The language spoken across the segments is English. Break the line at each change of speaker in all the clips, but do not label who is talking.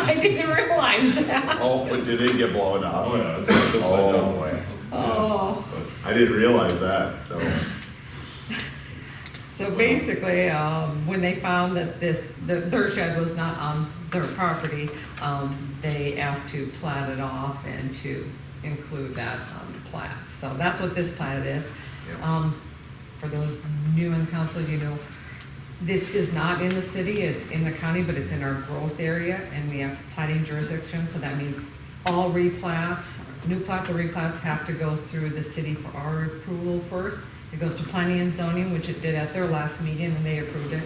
I didn't realize that.
Oh, but did it get blown up?
Oh, yeah, it's like upside
Oh,
down.
boy.
Oh,
I didn't realize that, so.
So basically, um, when they found that this, that their shed was not on their property, um, they asked to plat it off and to include that on the plat. So that's what this plat is.
Yeah.
Um, for those new in council, you know, this is not in the city, it's in the county, but it's in our growth area, and we have plating jurisdiction, so that means all replats, new plats or replats have to go through the city for our approval first. It goes to planning and zoning, which it did at their last meeting, and they approved it,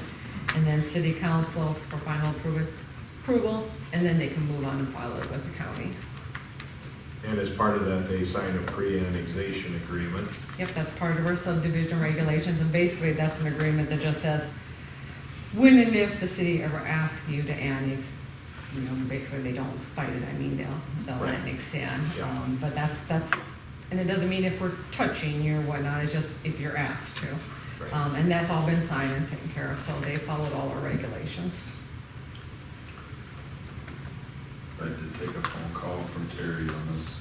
and then city council for final approval, approval, and then they can move on and file it with the county.
And as part of that, they signed a pre-annexation agreement.
Yep, that's part of our subdivision regulations, and basically, that's an agreement that just says, when and if the city ever asks you to annex, you know, basically, they don't fight it, I mean, they'll, they'll
Right.
annex in.
Yeah.
Um, But that's, that's, and it doesn't mean if we're touching you or whatnot, it's just if you're asked to.
Right.
Um, and that's all been signed and taken care of, so they followed all our regulations.
I did take a phone call from Terry on this.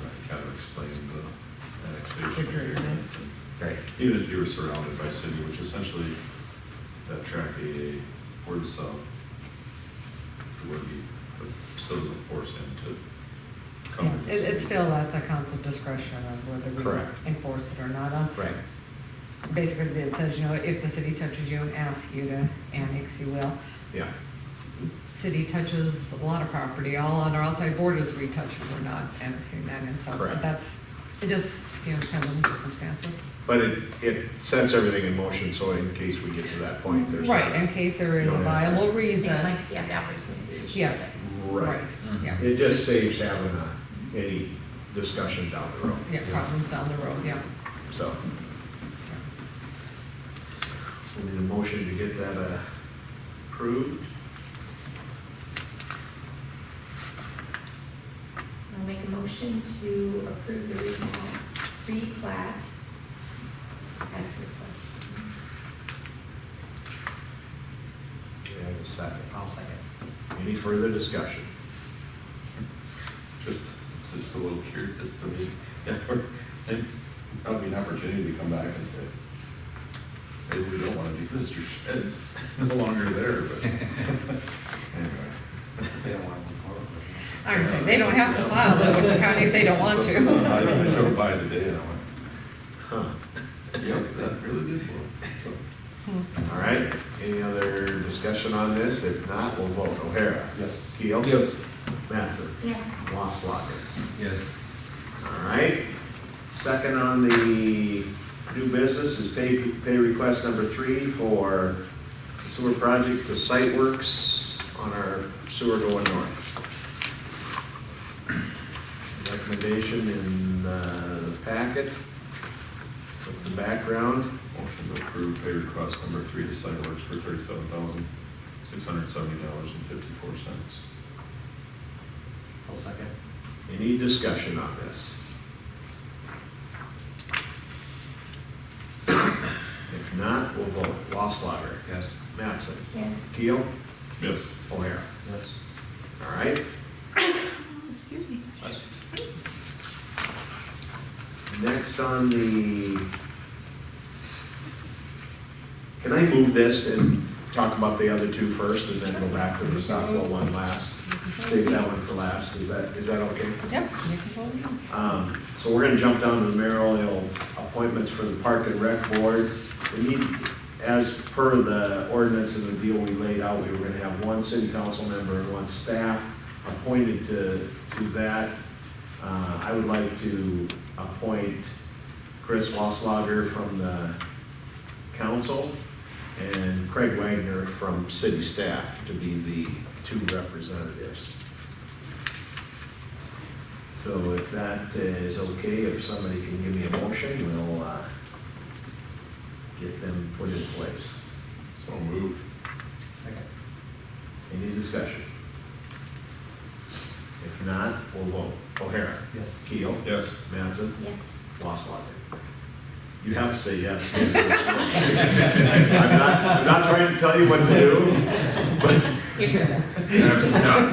I kind of explained the annexation
Agreement.
agreement.
Right.
Even if you were surrounded by city, which essentially that track AA or the sub would be, but still doesn't force him to come. to the
It, it's
city.
still at the council discretion of whether
Correct.
we enforce it or not. Um,
Right.
basically it says, you know, if the city touches you and asks you to annex, you will.
Yeah.
City touches a lot of property, all on our outside borders we touch, we're not annexing that in, so
Correct.
that's, it just, you know, depends on the circumstances.
But it, it sets everything in motion, so in case we get to that point, there's. not-
Right, in case there is a
Yeah.
viable
seems like
reason,
if you have the opportunity. you should
yes,
do it.
right,
Right. Mm-hmm.
yeah,
It just saves having a, any discussion down the road.
yeah, problems down the road, yeah.
So, we need a motion to get that uh, approved.
I'll make a motion to approve the replat, replat as requested.
Do we have a second? I'll second. Any further discussion?
Just, it's just a little curious to me. Yeah, we're- and That'd be an opportunity to come back and say, hey, we don't want to do this, your shed's no longer there, but.
I was saying, they don't have to file it with the county if they don't want to.
I I drove by today and I went,
Huh.
yep, that really did work. So,
All right, any other discussion on this? If not, we'll vote. O'Hara?
Yes.
Keel?
Yes.
Mattson?
Yes.
Loslawler?
Yes.
All right. Second on the new business is pay, pay request number three for sewer project to site works on our sewer going north. Recommendation in uh, the packet with the background.
Motion to approve pay request number three to site works for thirty-seven thousand, six hundred seventy dollars and fifty-four cents.
I'll second.
Any discussion on this? If not, we'll vote. Wasslager,
Yes.
Mattson,
Yes.
Keel,
Yes.
O'Hara.
Yes.
All right,
Excuse me.
next on the, can I move this and talk about the other two first and then go back to the Stockville one last? Save that one for last, is that, is that okay?
Yep, you can vote no.
Um, So we're gonna jump down to the mayoral appointments for the Park and Rec Board. We need, as per the ordinance and the deal we laid out, we were gonna have one city council member and one staff appointed to, to that. Uh, I would like to appoint Chris Wasslager from the council and Craig Wagner from city staff to be the two representatives. So if that is okay, if somebody can give me a motion, we'll uh, get them put in place.
So moved.
Second.
Any discussion? If not, we'll vote. O'Hara.
Yes.
Keel.
Yes.
Mattson.
Yes.
Loslawler. You have to say yes. I'm not, I'm not trying to tell you what to do, but
Yes.
I'm stuck.